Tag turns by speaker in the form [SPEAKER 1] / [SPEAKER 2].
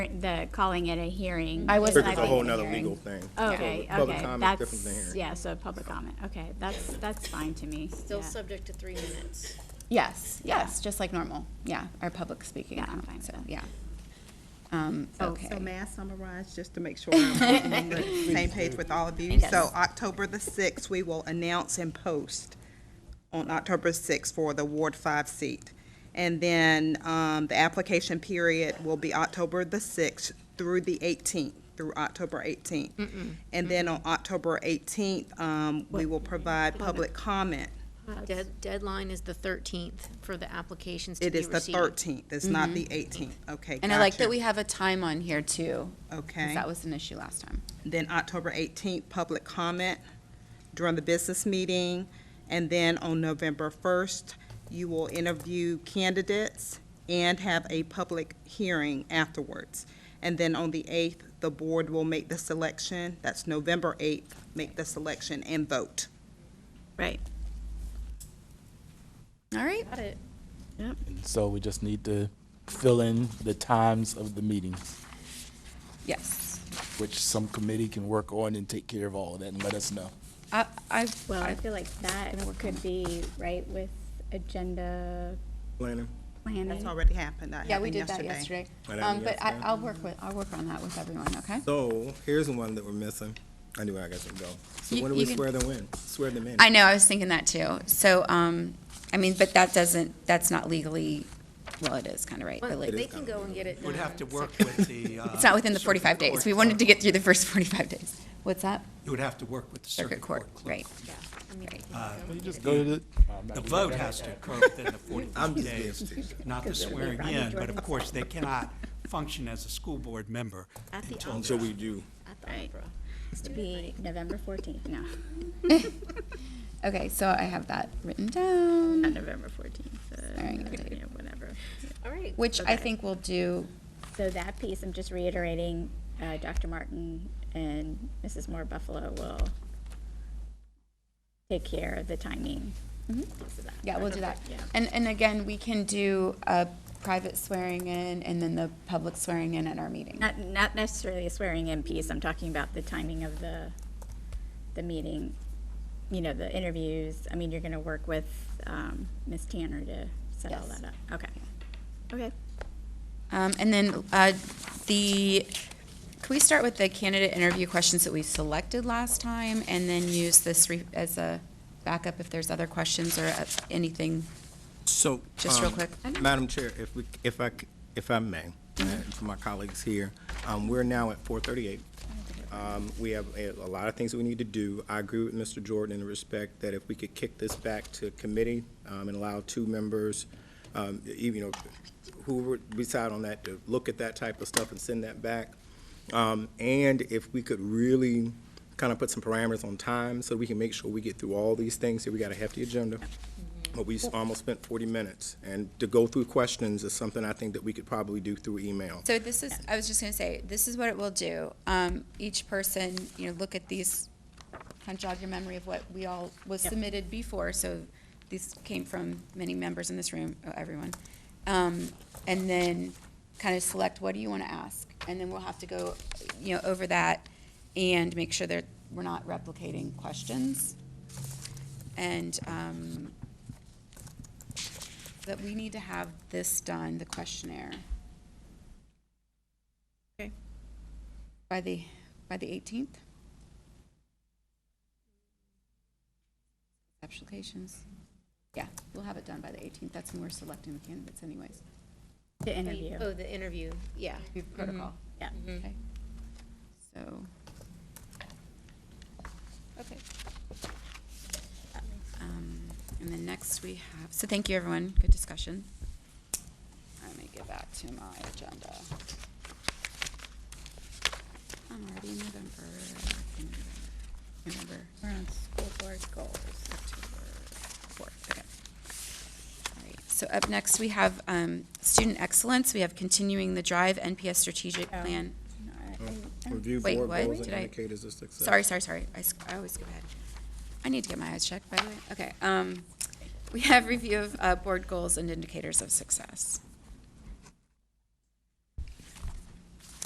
[SPEAKER 1] the calling it a hearing.
[SPEAKER 2] I wasn't-
[SPEAKER 1] like
[SPEAKER 2] Because
[SPEAKER 1] a
[SPEAKER 2] a whole nother
[SPEAKER 1] hearing. Oh,
[SPEAKER 2] legal thing.
[SPEAKER 1] Okay,
[SPEAKER 2] Public- public
[SPEAKER 1] okay,
[SPEAKER 2] comment's different than
[SPEAKER 1] that's,
[SPEAKER 2] hearing.
[SPEAKER 1] yeah, so public comment, okay, that's, that's fine to me.
[SPEAKER 3] Still
[SPEAKER 1] yeah.
[SPEAKER 3] subject to three minutes.
[SPEAKER 2] Yes, yes, just like normal. Yeah, our public speaking.
[SPEAKER 1] Yeah, I'm
[SPEAKER 2] comment,
[SPEAKER 1] fine
[SPEAKER 2] so,
[SPEAKER 1] with that.
[SPEAKER 2] yeah. Um,
[SPEAKER 4] So,
[SPEAKER 2] okay.
[SPEAKER 4] so may I summarize, just to make sure I'm on the same page with all of you? So October the sixth, we will announce and post on October sixth for the Ward Five seat. And then, um, the application period will be October the sixth through the eighteenth, through October eighteenth. And then on October eighteenth, um, we will provide public comment.
[SPEAKER 3] Dead- Deadline is the 13th for the applications to
[SPEAKER 4] It
[SPEAKER 3] be
[SPEAKER 4] is the
[SPEAKER 3] received.
[SPEAKER 4] thirteenth, it's not the eighteenth, okay,
[SPEAKER 2] Mm-hmm. And I like that
[SPEAKER 4] gotcha.
[SPEAKER 2] we have a time on here too. 'cause
[SPEAKER 4] Okay.
[SPEAKER 2] That was an issue last time.
[SPEAKER 4] then October 18th, public comment during the business meeting, and then on November 1st, you will interview candidates and have a public hearing afterwards. And then on the 8th, the board will make the selection, that's November 8th, make the selection and vote.
[SPEAKER 1] Right,
[SPEAKER 2] All right.
[SPEAKER 3] Got it.
[SPEAKER 1] yep,
[SPEAKER 5] So we just need to fill in the times of the meetings,
[SPEAKER 2] Yes.
[SPEAKER 5] which some committee can work on and take care of all of that and let us know.
[SPEAKER 2] I, I,
[SPEAKER 1] well, I
[SPEAKER 2] I-
[SPEAKER 1] feel like that could be, right, with agenda
[SPEAKER 2] Planning.
[SPEAKER 4] That's
[SPEAKER 1] planning.
[SPEAKER 4] already happened, that
[SPEAKER 2] yeah, we
[SPEAKER 4] happened
[SPEAKER 2] did that
[SPEAKER 4] yesterday.
[SPEAKER 2] yesterday.
[SPEAKER 6] That
[SPEAKER 2] Um,
[SPEAKER 6] happened
[SPEAKER 2] but I,
[SPEAKER 6] yesterday.
[SPEAKER 2] I'll work with, I'll work on that with everyone, okay?
[SPEAKER 6] So here's the one that we're missing. Anyway, I guess we can go. So
[SPEAKER 2] You-
[SPEAKER 6] when do
[SPEAKER 2] you
[SPEAKER 6] we
[SPEAKER 2] can-
[SPEAKER 6] swear them in? Swear them in?
[SPEAKER 2] I know, I was thinking that too. So, um, I mean, but that doesn't, that's not legally, well, it is kind of right, but
[SPEAKER 3] Well,
[SPEAKER 2] like,
[SPEAKER 3] They can go and get it done.
[SPEAKER 7] Would have to
[SPEAKER 3] So-
[SPEAKER 7] work with the. uh,
[SPEAKER 2] it's not within the
[SPEAKER 7] circuit
[SPEAKER 2] forty-five days.
[SPEAKER 7] court
[SPEAKER 2] We wanted to
[SPEAKER 7] clerk.
[SPEAKER 2] get through the first forty-five days. What's that?
[SPEAKER 7] You would have to work with the
[SPEAKER 2] Circuit court,
[SPEAKER 7] clerk.
[SPEAKER 2] right.
[SPEAKER 3] Yeah, I mean, they can go.
[SPEAKER 7] The vote has to occur within the
[SPEAKER 6] I'm
[SPEAKER 7] 45
[SPEAKER 6] just
[SPEAKER 7] days,
[SPEAKER 6] being
[SPEAKER 7] not the swearing in, but of course, they cannot function as a school board member
[SPEAKER 3] At the
[SPEAKER 7] until
[SPEAKER 6] Until
[SPEAKER 7] they're-
[SPEAKER 6] we do.
[SPEAKER 3] At the
[SPEAKER 1] Right.
[SPEAKER 3] opera.
[SPEAKER 1] It's to be November fourteenth, no,
[SPEAKER 2] Okay, so I have that written down.
[SPEAKER 1] not November fourteenth,
[SPEAKER 2] Swearing in date.
[SPEAKER 1] whatever.
[SPEAKER 3] All right.
[SPEAKER 2] Which I
[SPEAKER 1] Okay.
[SPEAKER 2] think will do,
[SPEAKER 1] So that piece, I'm just reiterating, uh, Dr. Martin and Mrs. Moore Buffalo will take care of the timing. piece of that.
[SPEAKER 2] Mm-hmm. yeah, we'll do that.
[SPEAKER 1] Yeah.
[SPEAKER 2] And, and again, we can do a private swearing in and then the public swearing in at our meeting.
[SPEAKER 1] Not, not necessarily a swearing in piece, I'm talking about the timing of the, the meeting, you know, the interviews. I mean, you're gonna work with, um, Ms. Tanner to set all
[SPEAKER 2] Yes.
[SPEAKER 1] that up. Okay. Okay.
[SPEAKER 2] Um, and then, uh, the, can we start with the candidate interview questions that we selected last time? And then use this re- as a backup if there's other questions or uh, anything?
[SPEAKER 6] So.
[SPEAKER 2] Just real
[SPEAKER 6] um,
[SPEAKER 2] quick. I know.
[SPEAKER 6] Madam Chair, if we, if I, c- if I may, uh, for my colleagues here, um, we're now at four thirty-eight. Um, we have a, a lot of things that we need to do. I agree with Mr. Jordan in the respect that if we could kick this back to committee, um, and allow two members, um, e- you know, who would decide on that, to look at that type of stuff and send that back. Um, and if we could really kind of put some parameters on time so we can make sure we get through all these things, here we got a hefty agenda. But we s- almost spent forty minutes, and to go through questions is something I think that we could probably do through email.
[SPEAKER 2] So this is, I was just gonna say, this is what it will do. Um, each person, you know, look at these, kind of jog your memory of what we all was submitted before, so these came from many members in this room, oh, everyone. Um, and then kind of select, what do you wanna ask? And then we'll have to go, you know, over that and make sure that we're not replicating questions. And, um, that we need to have this done, the questionnaire. By the, by the eighteenth? Applications, yeah, we'll have it done by the eighteenth, that's when we're selecting the candidates anyways.
[SPEAKER 1] To interview.
[SPEAKER 3] Oh, the interview, yeah.
[SPEAKER 2] Review protocol.
[SPEAKER 1] Yeah.
[SPEAKER 2] Okay. Mm-hmm. So. Okay. Um, and then next we have, so thank you, everyone, good discussion. Let me get back to my agenda. I'm already in November, November.
[SPEAKER 1] We're on school board goals.
[SPEAKER 2] Fourth, okay. All right, So up next, we have um, student excellence. We have continuing the drive NPS strategic
[SPEAKER 1] Oh.
[SPEAKER 2] Mm-hmm. plan.
[SPEAKER 1] No, I- I- I'm-
[SPEAKER 6] Review
[SPEAKER 2] Wait,
[SPEAKER 6] board
[SPEAKER 2] what?
[SPEAKER 6] goals and
[SPEAKER 2] Did I-
[SPEAKER 6] indicators of success.
[SPEAKER 2] Sorry, sorry, sorry. I s- I always skip ahead. I need to get my eyes checked, by the way. Okay. um, We have review of uh, board goals and indicators of success.